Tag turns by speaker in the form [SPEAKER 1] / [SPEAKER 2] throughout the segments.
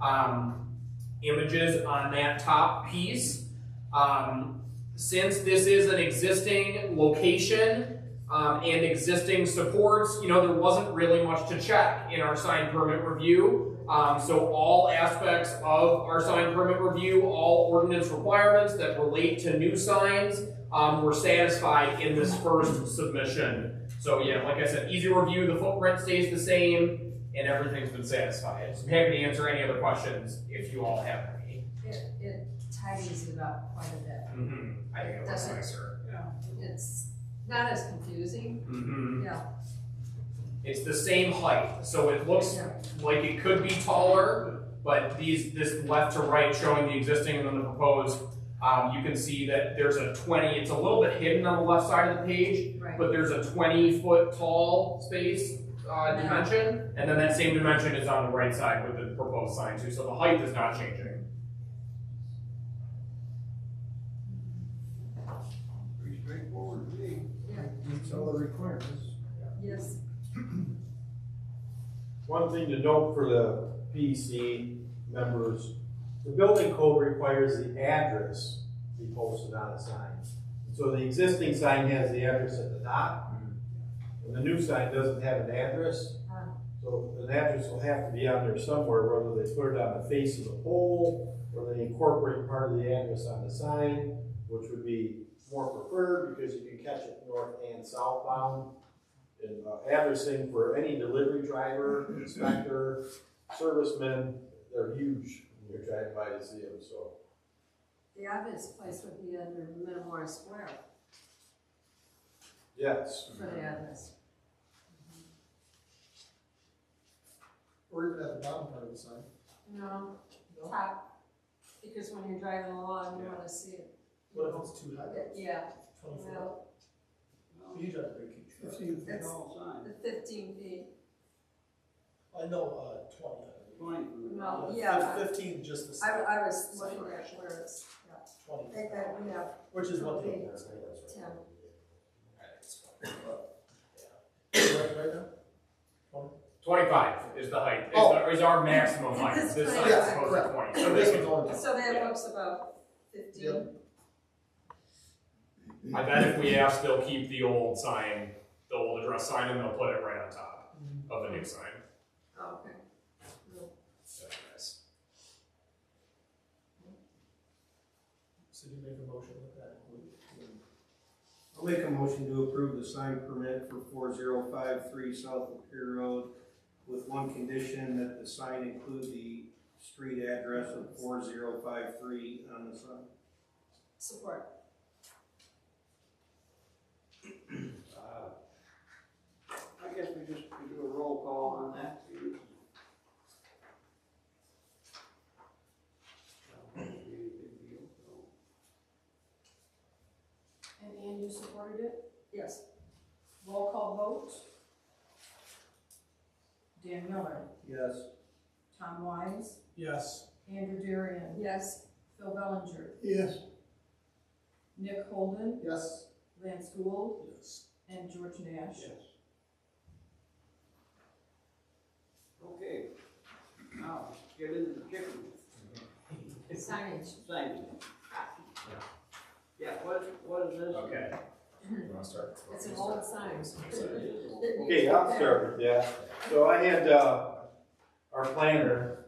[SPEAKER 1] um, images on that top piece. Um, since this is an existing location um, and existing supports, you know, there wasn't really much to check in our sign permit review. Um, so all aspects of our sign permit review, all ordinance requirements that relate to new signs um, were satisfied in this first submission. So yeah, like I said, easy review, the footprint stays the same, and everything's been satisfied. So I'm happy to answer any other questions if you all have any.
[SPEAKER 2] It, it tidies it up quite a bit.
[SPEAKER 1] Mm-hmm. I think it looks
[SPEAKER 2] Doesn't-
[SPEAKER 1] nicer.
[SPEAKER 2] It's not as confusing,
[SPEAKER 1] Mm-hmm.
[SPEAKER 2] yeah.
[SPEAKER 1] It's the same height, so it looks like it could be taller, but these, this left to right showing the existing and then the proposed, um, you can see that there's a twenty, it's a little bit hidden on the left side of the page,
[SPEAKER 2] Right,
[SPEAKER 1] but there's a twenty foot tall space, uh,
[SPEAKER 2] Yeah.
[SPEAKER 1] dimension, and then that same dimension is on the right side with the proposed sign too, so the height is not changing.
[SPEAKER 3] Pretty straightforward to me.
[SPEAKER 2] Yeah.
[SPEAKER 3] Meets all the requirements.
[SPEAKER 2] yes,
[SPEAKER 4] One thing to note for the PC members, the building code requires the address be posted on a sign. So the existing sign has the address at the top, and the new sign doesn't have an address.
[SPEAKER 2] Ah.
[SPEAKER 4] So an address will have to be on there somewhere, whether they put it on the face of the pole, or they incorporate part of the address on the sign, which would be more preferred, because you can catch it north and southbound and uh, addressing for any delivery driver, inspector, serviceman, they're huge when you're driving by to see them, so.
[SPEAKER 2] the obvious place would be under Metamora Square
[SPEAKER 4] Yes,
[SPEAKER 2] for the others.
[SPEAKER 3] Mm-hmm. Or even at the bottom part of the sign.
[SPEAKER 2] No, top, because when you're driving along, you wanna see it.
[SPEAKER 5] What if it's too high?
[SPEAKER 2] Yeah,
[SPEAKER 5] Twenty-four.
[SPEAKER 2] well,
[SPEAKER 5] You drive a big truck.
[SPEAKER 6] Fifteen feet
[SPEAKER 2] That's-
[SPEAKER 6] tall sign,
[SPEAKER 2] the fifteen feet,
[SPEAKER 5] I know, uh, twenty.
[SPEAKER 6] twenty for the
[SPEAKER 2] No.
[SPEAKER 6] dollar.
[SPEAKER 2] Yeah.
[SPEAKER 5] Fif- Fifteen, just the
[SPEAKER 2] I,
[SPEAKER 5] same,
[SPEAKER 2] I was looking at where it's, yeah, I
[SPEAKER 5] twenty,
[SPEAKER 2] think that we have
[SPEAKER 5] which is what they.
[SPEAKER 2] Okay. ten.
[SPEAKER 5] Right, right now?
[SPEAKER 1] Twenty-five is the height, is,
[SPEAKER 5] Oh.
[SPEAKER 1] the- is our maximum height,
[SPEAKER 2] It's
[SPEAKER 1] this sign is
[SPEAKER 2] 25.
[SPEAKER 1] supposed to be twenty, so
[SPEAKER 5] So
[SPEAKER 1] this
[SPEAKER 5] this
[SPEAKER 1] is,
[SPEAKER 5] one's only.
[SPEAKER 2] So that
[SPEAKER 1] Yeah.
[SPEAKER 2] looks about fifteen,
[SPEAKER 5] Yep.
[SPEAKER 1] I bet if we ask, they'll keep the old sign, the old address sign, and they'll put it right on top of the new sign.
[SPEAKER 2] Oh, okay.
[SPEAKER 1] So, yes.
[SPEAKER 5] So do you make a motion with that?
[SPEAKER 3] I'll make a motion to approve the sign permit for four zero five three South of Pier Road with one condition that the sign include the street address of four zero five three on the sign.
[SPEAKER 2] Support,
[SPEAKER 6] Uh, I guess we just we do a roll call on that. too. Not really a big deal, so.
[SPEAKER 7] And Ann, you supported it?
[SPEAKER 2] yes,
[SPEAKER 7] Roll call vote. Dan Miller,
[SPEAKER 3] Yes.
[SPEAKER 7] Tom Wise,
[SPEAKER 5] Yes.
[SPEAKER 7] Andrew Darian,
[SPEAKER 2] yes,
[SPEAKER 7] Phil Bellinger,
[SPEAKER 3] Yes.
[SPEAKER 7] Nick Holden,
[SPEAKER 5] Yes.
[SPEAKER 7] Lance Gould,
[SPEAKER 5] Yes.
[SPEAKER 7] and George Nash.
[SPEAKER 6] Yes. Okay, now, let's get into the chicken
[SPEAKER 2] signage.
[SPEAKER 6] thing. Yeah, what, what is this?
[SPEAKER 1] Okay. You wanna start?
[SPEAKER 2] It's an old sign.
[SPEAKER 4] Okay, I'll start with that. So I had, uh, our planner,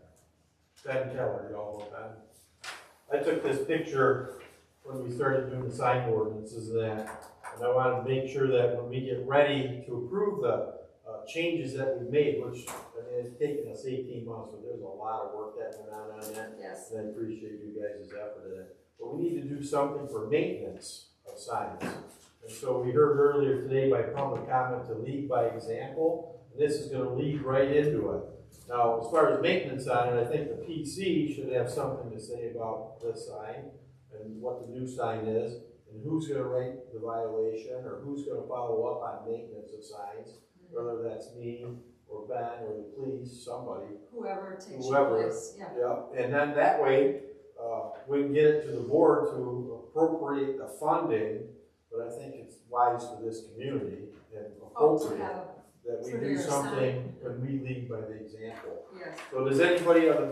[SPEAKER 4] Ben Keller, y'all know Ben. I took this picture when we started doing the sign ordinances and that, and I wanted to make sure that when we get ready to approve the, uh, changes that we made, which, I mean, it's taken us eighteen months, but there's a lot of work that went on on that.
[SPEAKER 2] Yes,
[SPEAKER 4] And I appreciate you guys' effort in it. But we need to do something for maintenance of signs. And so we heard earlier today by public comment to lead by example, and this is gonna lead right into it. Now, as far as maintenance on it, I think the PC should have something to say about this sign and what the new sign is, and who's gonna write the violation, or who's gonna follow up on maintenance of signs, whether that's me, or Ben, or the police, somebody.
[SPEAKER 2] whoever takes your
[SPEAKER 4] Whoever.
[SPEAKER 2] place, yeah,
[SPEAKER 4] Yeah, and then that way, uh, we can get it to the board to appropriate the funding, but I think it's wise for this community and
[SPEAKER 2] oh, to
[SPEAKER 4] appropriate
[SPEAKER 2] have,
[SPEAKER 4] that we
[SPEAKER 2] for their
[SPEAKER 4] do something when we lead by the example.
[SPEAKER 2] yes.
[SPEAKER 4] So does anybody on the